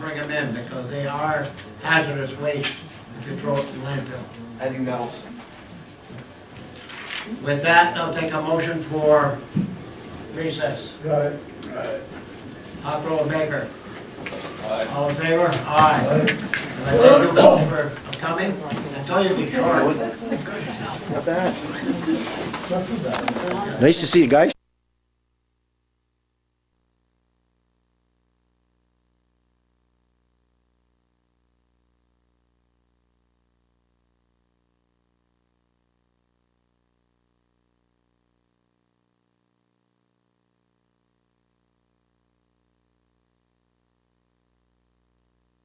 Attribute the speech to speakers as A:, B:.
A: them because they are hazardous waste if you throw it in landfill.
B: Heavy metals.
A: With that, I'll take a motion for recess.
C: Got it.
A: Honorable Baker,
D: Aye.
A: all in favor? Aye. And I thank you all for coming. I told you to be short.
C: Not too bad.
E: Nice to see you guys.